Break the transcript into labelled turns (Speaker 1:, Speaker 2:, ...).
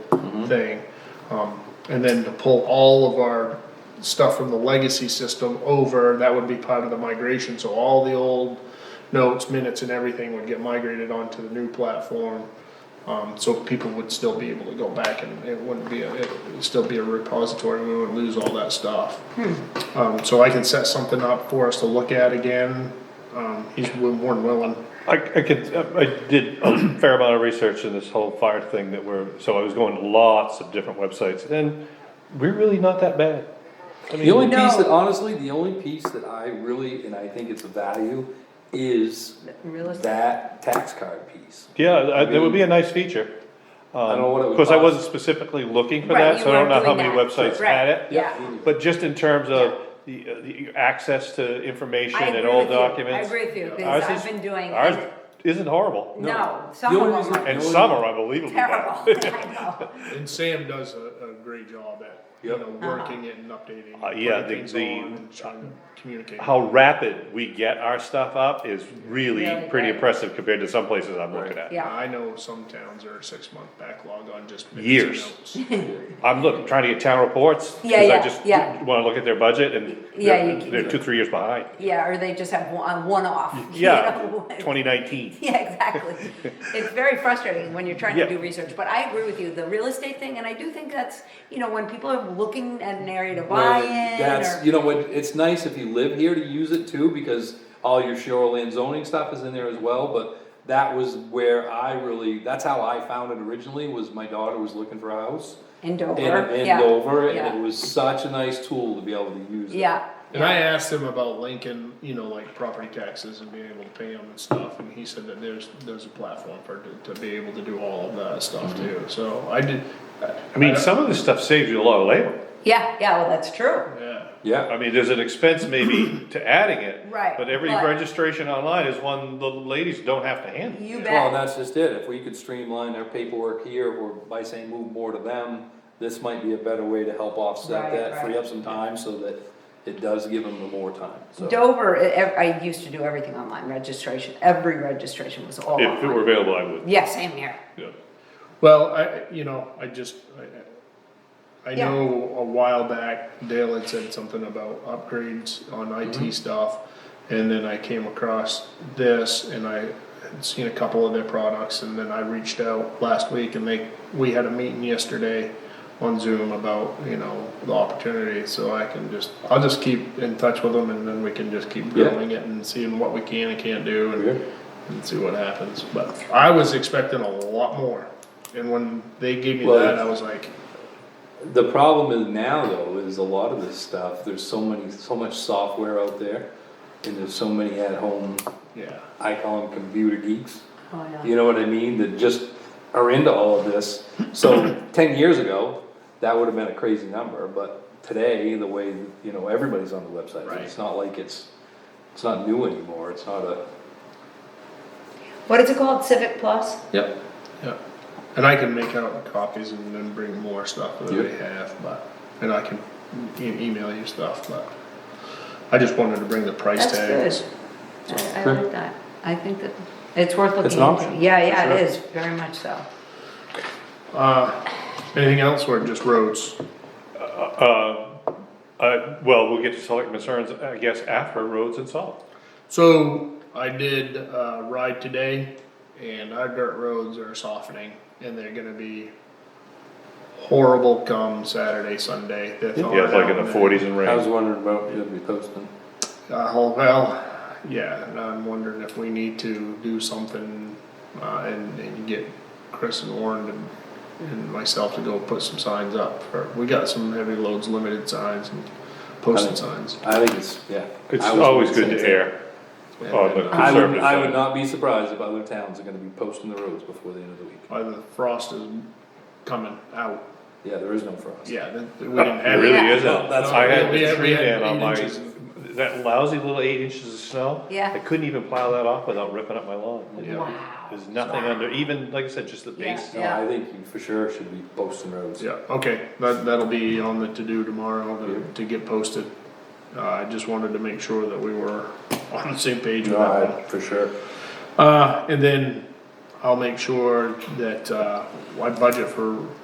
Speaker 1: Mm-hmm. thing. Um, and then to pull all of our stuff from the legacy system over, that would be part of the migration, so all the old notes, minutes and everything would get migrated onto the new platform. Um, so people would still be able to go back and it wouldn't be, a- it would still be a repository, we wouldn't lose all that stuff. Um, so I can set something up for us to look at again, um, he's more than willing.
Speaker 2: I, I could, I did a fair amount of research in this whole fire thing that we're, so I was going to lots of different websites, and we're really not that bad. I
Speaker 3: The only
Speaker 2: mean,
Speaker 3: piece that,
Speaker 4: No.
Speaker 3: honestly, the only piece that I really, and I think it's a value, is
Speaker 4: Real estate.
Speaker 3: that tax card piece.
Speaker 2: yeah, I- that would be a nice feature.
Speaker 3: I don't know what it would
Speaker 2: Of course, I
Speaker 3: cost.
Speaker 2: wasn't specifically looking for
Speaker 4: Right,
Speaker 2: that,
Speaker 4: you
Speaker 2: so I don't know
Speaker 4: weren't
Speaker 2: how
Speaker 4: doing
Speaker 2: many
Speaker 4: that.
Speaker 2: websites
Speaker 4: Right,
Speaker 2: had it.
Speaker 3: Mm-hmm.
Speaker 4: yeah.
Speaker 2: But just in terms of the, uh, the access to information
Speaker 4: I
Speaker 2: and
Speaker 4: agree
Speaker 2: old
Speaker 4: with you.
Speaker 2: documents.
Speaker 4: I agree with you,
Speaker 2: ours
Speaker 4: because I've
Speaker 2: is-
Speaker 4: been doing,
Speaker 2: Ours isn't horrible,
Speaker 4: no,
Speaker 3: The
Speaker 4: some
Speaker 3: only
Speaker 4: of them
Speaker 3: reason-
Speaker 4: are
Speaker 2: and
Speaker 3: No,
Speaker 2: some
Speaker 3: no.
Speaker 2: are unbelievably bad.
Speaker 4: terrible, I know.
Speaker 1: And Sam does a, a great job at, you
Speaker 3: Yep.
Speaker 1: know, working it and updating.
Speaker 2: Uh,
Speaker 1: and
Speaker 2: yeah,
Speaker 1: putting
Speaker 2: the-
Speaker 1: things
Speaker 2: the-
Speaker 1: on and trying to Communicate.
Speaker 2: How rapid we get our stuff up is really
Speaker 4: Really
Speaker 2: pretty
Speaker 4: great.
Speaker 2: impressive compared to some places I'm looking at.
Speaker 4: Yeah.
Speaker 1: I know some towns are six month backlog on just.
Speaker 2: Years.
Speaker 1: minutes and notes.
Speaker 2: I'm looking, trying to get town reports, cause
Speaker 4: Yeah,
Speaker 2: I
Speaker 4: yeah,
Speaker 2: just
Speaker 4: yeah.
Speaker 2: wanna look at their budget and
Speaker 4: Yeah, you
Speaker 2: they're,
Speaker 4: can-
Speaker 2: they're two, three years behind.
Speaker 4: Yeah, or they just have one, one off. you
Speaker 2: Yeah,
Speaker 4: know?
Speaker 2: twenty nineteen.
Speaker 4: Yeah, exactly. It's very frustrating when you're trying
Speaker 2: Yeah.
Speaker 4: to do research, but I agree with you, the real estate thing, and I do think that's, you know, when people are looking at an area to buy
Speaker 3: Well,
Speaker 4: in
Speaker 3: That's,
Speaker 4: or.
Speaker 3: you know, what, it's nice if you live here to use it too, because all your shoreline zoning stuff is in there as well, but that was where I really, that's how I found it originally, was my daughter was looking for a house.
Speaker 4: In
Speaker 3: in
Speaker 4: Dover,
Speaker 3: in
Speaker 4: yeah.
Speaker 3: Dover, and
Speaker 4: yeah.
Speaker 3: it was such a nice tool to be able to use. it.
Speaker 4: Yeah,
Speaker 1: And I asked him about Lincoln, you know, like property taxes and being able to pay them and stuff, and he said that there's, there's a platform for, to- to be able to do all of that stuff too, so I did.
Speaker 2: I mean, some of this stuff saves you a lot of labor.
Speaker 4: yeah, yeah, well, that's true.
Speaker 1: Yeah,
Speaker 3: Yeah,
Speaker 2: I mean, there's an expense maybe to adding it.
Speaker 4: Right,
Speaker 2: But every
Speaker 4: but-
Speaker 2: registration online is one the ladies don't have to handle.
Speaker 4: You
Speaker 3: well, and
Speaker 4: bet.
Speaker 3: that's just it, if we could streamline our paperwork here, or by saying move more to them, this might be a better way to help offset
Speaker 4: Right,
Speaker 3: that, free
Speaker 4: right.
Speaker 3: up some time, so that it does give them the more time, so.
Speaker 4: Dover, e- ev- I used to do everything online, registration, every registration was all
Speaker 2: If it were
Speaker 4: online.
Speaker 2: available, I would,
Speaker 4: Yeah, same here.
Speaker 2: yeah.
Speaker 1: well, I, you know, I just, I, I
Speaker 4: Yeah.
Speaker 1: know a while back Dale had said something about upgrades on
Speaker 3: Mm-hmm.
Speaker 1: IT stuff, and then I came across this, and I had seen a couple of their products, and then I reached out last week, and they, we had a meeting yesterday on Zoom about, you know, the opportunity, so I can just, I'll just keep in touch with them, and then we can just keep
Speaker 3: Yeah.
Speaker 1: growing it and seeing what we can and can't do,
Speaker 3: Yeah.
Speaker 1: and, and see what happens, but I was expecting a lot more, and when they gave me
Speaker 3: Well,
Speaker 1: that, I
Speaker 3: it's-
Speaker 1: was like,
Speaker 3: The problem is now though, is a lot of this stuff, there's so many, so much software out there, and there's so many at-home,
Speaker 1: yeah.
Speaker 3: I call them computer geeks.
Speaker 4: Oh, yeah.
Speaker 3: You know what I mean, that just are into all of this. So ten years ago, that would have been a crazy number, but today, the way, you know, everybody's on the website, it's
Speaker 1: Right.
Speaker 3: not like it's, it's not new anymore, it's not a.
Speaker 4: What is it called, Civic Plus?
Speaker 3: Yep.
Speaker 1: Yeah, and I can make out copies and then bring more stuff that we
Speaker 3: Yeah.
Speaker 1: have, but, and I can e- email you stuff, but I just wanted to bring the price
Speaker 4: That's
Speaker 1: tags.
Speaker 4: good. I I
Speaker 3: Sure.
Speaker 4: like that. I think that it's worth looking
Speaker 3: It's
Speaker 4: into.
Speaker 3: an option,
Speaker 4: Yeah, yeah, it
Speaker 3: sure.
Speaker 4: is, very much so.
Speaker 1: Uh, anything else or just roads?
Speaker 2: Uh, uh, well, we'll get to select concerns, I guess, after roads and salt.
Speaker 1: So I did, uh, ride today and our dirt roads are softening and they're gonna be horrible come Saturday, Sunday. They're
Speaker 2: Yeah, it's like in
Speaker 1: thawing out.
Speaker 2: the forties and
Speaker 3: I was
Speaker 2: rain.
Speaker 3: wondering about, you'd be posting.
Speaker 1: Uh, oh, well, yeah, and I'm wondering if we need to do something, uh, and, and get Chris and Warren and, and myself to go put some signs up. for- We got some heavy loads, limited signs and posted signs.
Speaker 3: I think it's, yeah.
Speaker 2: It's
Speaker 3: I was
Speaker 2: always
Speaker 3: wondering
Speaker 2: good to
Speaker 3: the same thing.
Speaker 2: air
Speaker 1: And
Speaker 2: on the
Speaker 1: then
Speaker 3: I would,
Speaker 2: conservative
Speaker 3: I would
Speaker 2: side.
Speaker 3: not be surprised if other towns are gonna be posting the roads before the end of the week.
Speaker 1: By uh, the frost is coming out,
Speaker 3: Yeah, there is no frost.
Speaker 1: yeah, that, that we didn't
Speaker 2: It
Speaker 1: have.
Speaker 2: really
Speaker 4: Yeah.
Speaker 2: isn't.
Speaker 3: No, that's
Speaker 2: I had
Speaker 1: what we had. We
Speaker 2: three
Speaker 1: had
Speaker 2: down on
Speaker 1: eight
Speaker 2: my,
Speaker 1: inches.
Speaker 2: that lousy little eight inches of snow.
Speaker 4: Yeah.
Speaker 2: I couldn't even plow that off without ripping up my lawn.
Speaker 1: Yeah.
Speaker 4: Wow.
Speaker 2: There's nothing under, even, like I said, just the
Speaker 4: Yeah.
Speaker 2: base.
Speaker 3: No, I think you for sure should be posting roads.
Speaker 1: Yeah, okay, that, that'll be on the to-do tomorrow to, to get posted. Uh, I just wanted to make sure that we were on the same page with
Speaker 3: No,
Speaker 1: that one.
Speaker 3: I- for sure.
Speaker 1: Uh, and then I'll make sure that, uh, I budget for